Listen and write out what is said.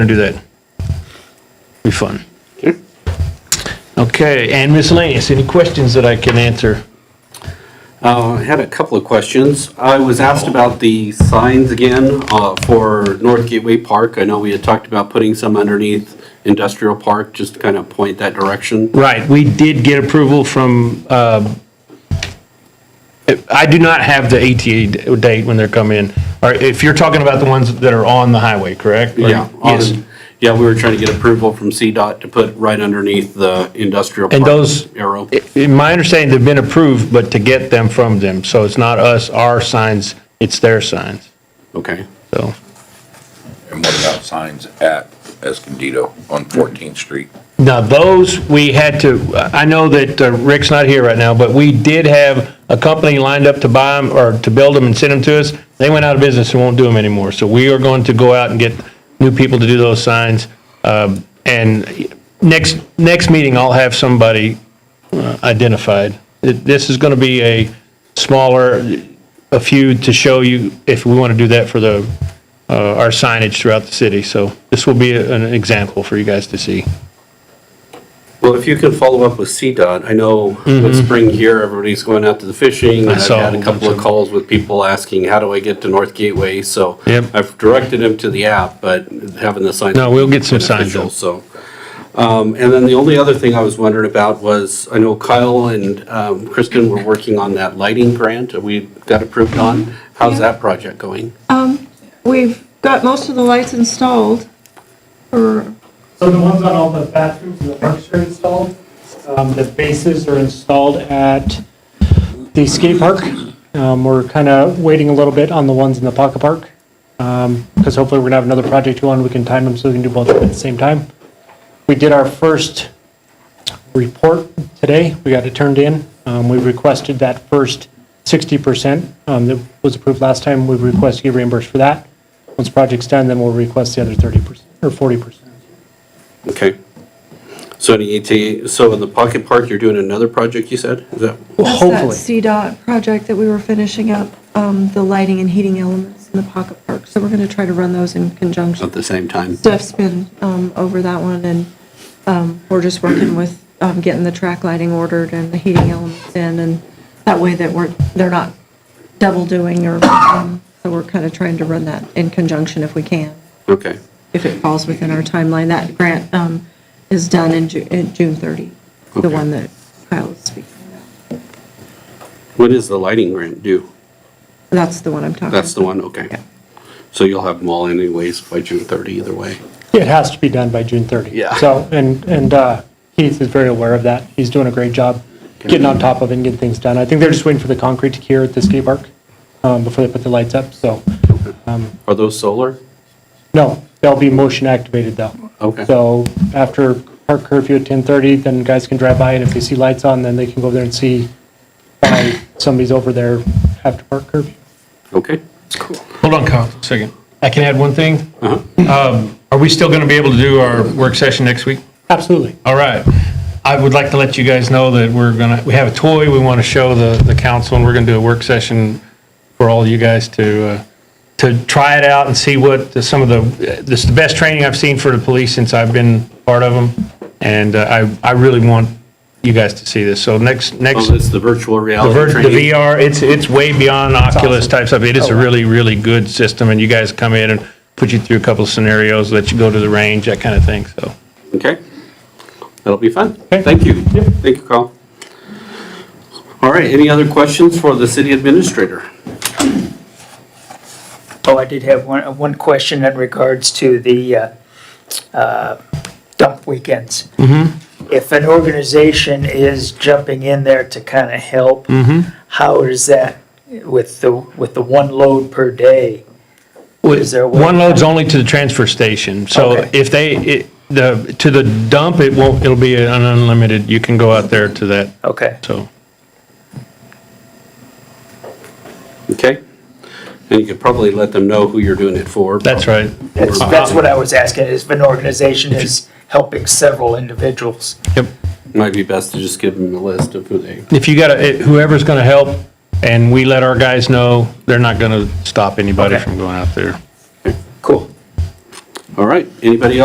and do that. Be fun. Okay, and miscellaneous, any questions that I can answer? Uh, I had a couple of questions. I was asked about the signs again uh, for North Gateway Park. I know we had talked about putting some underneath Industrial Park, just to kind of point that direction. Right, we did get approval from, uh, I do not have the ATA d- date when they're coming in. Or if you're talking about the ones that are on the highway, correct? Or- Yeah. on- Yes. um, Yeah, we were trying to get approval from CDOT to put right underneath the Industrial Park. And those- Arrow. In my understanding, they've been approved, but to get them from them. So it's not us, our signs, it's their signs. Okay. So And what about signs at Escondido on 14th Street? now those, we had to, I know that uh, Rick's not here right now, but we did have a company lined up to buy them or to build them and send them to us. They went out of business and won't do them anymore. So we are going to go out and get new people to do those signs. Um, And next, next meeting, I'll have somebody uh, identified. It- This is going to be a smaller, a few to show you if we want to do that for the, uh, our signage throughout the city. So this will be an example for you guys to see. Well, if you could follow up with CDOT, I know with spring here, everybody's going out to the fishing. and I've Mm-hmm. saw had a a couple bunch of of calls with people asking, how do I get to North Gateway? So Yep. I've directed them to the app, but having the sign. No, we'll get some signs beneficial, up. So, um, and then the only other thing I was wondering about was, I know Kyle and um, Kristen were working on that lighting grant that we got approved on. How's Yeah. that project going? We've got most of the lights installed, or, So the ones on all the bathrooms and the parks are installed. Um, The bases are installed at the skate park. Um, We're kind of waiting a little bit on the ones in the pocket park. Because hopefully we're going to have another project going, we can time them so we can do both at the same time. We did our first report today, we got it turned in. Um, We requested that first 60% um, that was approved last time, we request to get reimbursed for that. Once project's done, then we'll request the other 30% or 40%. Okay. So the ET, so in the Pocket Park, you're doing another project, you said? Is that? that's that CDOT project that we were finishing up, um, the lighting and heating elements in the pocket park. So we're going to try to run those in conjunction. At the same time? Steph's been um, over that one, and um, we're just working with um, getting the track lighting ordered and the heating elements in, and that way that we're, they're not double doing, or, um, so we're kind of trying to run that in conjunction if we can. Okay. if it falls within our timeline. That grant um, is done in Ju- in June 30, the Okay. one that Kyle was speaking about. When is the lighting grant due? That's the one I'm talking about. That's the one, okay. So you'll have them all anyways by June 30 either way. It has to be done by June 30. Yeah. So, and, and uh, Keith is very aware of that. He's doing a great job getting on top of it and getting things done. I think they're just waiting for the concrete to cure at the skate park um, before they put the lights up, so. Are those solar? No, they'll be motion activated though. Okay. So after park curfew at 10:30, then guys can drive by and if they see lights on, then they can go there and see why somebody's over there after park curfew. Okay. Hold on, Kyle, a second. I can add one thing. Uh-huh. Um, Are we still going to be able to do our work session next week? Absolutely. All right. I would like to let you guys know that we're going to, we have a toy we want to show the, the council, and we're going to do a work session for all you guys to, uh, to try it out and see what, the- some of the, this is the best training I've seen for the police since I've been part of them, and uh, I, I really want you guys to see this. So next, next. Oh, it's the virtual The reality vir- the training? VR, it's, it's way beyond Oculus type stuff. It is Oh, a really, really good system, and you guys come in and put you through a couple of scenarios, let you go to the range, that kind of thing, so. Okay. That'll be fun. Okay. Thank you. Thank you, Carl. All right, any other questions for the city administrator? Oh, I did have one, one question in regards to the uh, uh, dump weekends. If an organization is jumping in there to kind of help, how is that with the, with the one load per day? Is there a way- One load's only to the transfer station, so Okay. if they, it, the, to the dump, it won't, it'll be an unlimited, you can go out there to that, Okay, so. Okay. And you could probably let them know who you're doing it for. That's right. that's, that's what I was asking, is if an organization is helping several individuals. Yep. Might be best to just give them a list of who they, If you gotta, it- whoever's gonna help, and we let our guys know, they're not gonna stop anybody Okay. from going out there. Cool. All right, anybody else?